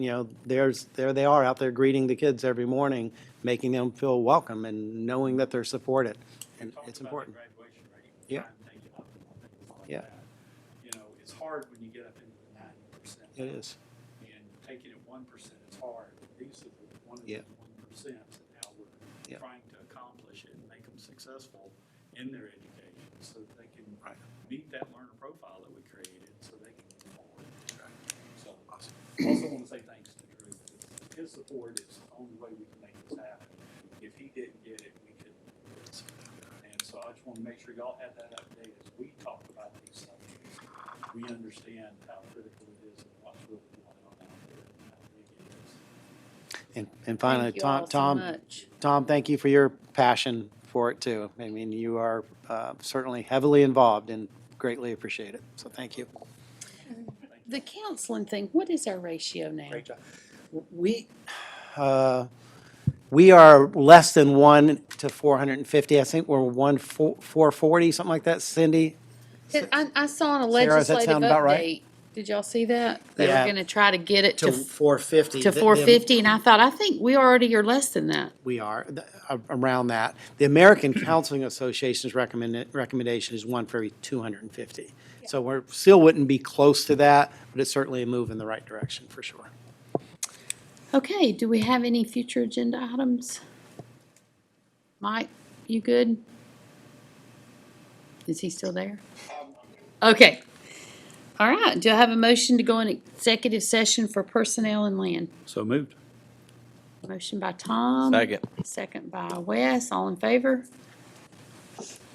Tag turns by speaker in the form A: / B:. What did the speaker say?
A: you know, there's, there they are out there greeting the kids every morning, making them feel welcome and knowing that they're supported. And
B: talked
A: it's
B: about the
A: important.
B: Graduation rate.
A: Yeah.
B: trying to take it up and things like
A: Yeah.
B: that. You know, it's hard when you get up into the ninety percent.
A: It is.
B: And taking it one percent is hard. These are the one of the
A: Yeah.
B: one percents and how
A: Yeah.
B: we're trying to accomplish it and make them successful in their education so that they can
C: Right.
B: meet that learner profile that we created so they can move forward.
C: Right.
B: So also want to say thanks to Drew. His support is the only way we can make this happen. If he didn't get it, we couldn't. do this. And so I just want to make sure y'all have that update as we talk about these subjects. We understand how critical it is and what's really going on out there and how big it is.
A: And, and finally,
D: Thank you all
A: Tom,
D: so
A: Tom,
D: much.
A: Tom, thank you for your passion for it too. I mean, you are uh, certainly heavily involved and greatly appreciate it. So thank you.
D: The counseling thing, what is our ratio now?
A: We, uh, we are less than one to four hundred and fifty. I think we're one four forty, something like that, Cindy.
D: I, I saw in a
A: Sarah, does that
D: legislative
A: sound about right?
D: update, did y'all see that? They
A: Yeah.
D: were gonna try to get it to,
A: four fifty.
D: to four fifty, and I thought, I think we already are less than that.
A: We are, th- a- around that. The American Counseling Association's recommend, recommendation is one for every two hundred and fifty. So we're, still wouldn't be close to that, but it's certainly a move in the right direction, for sure.
D: Okay, do we have any future agenda items? Mike, you good? Is he still there? Okay. All right, do I have a motion to go in executive session for personnel and land?
B: So moved.
D: Motion by Tom.
E: Second.
D: Second by Wes, all in favor?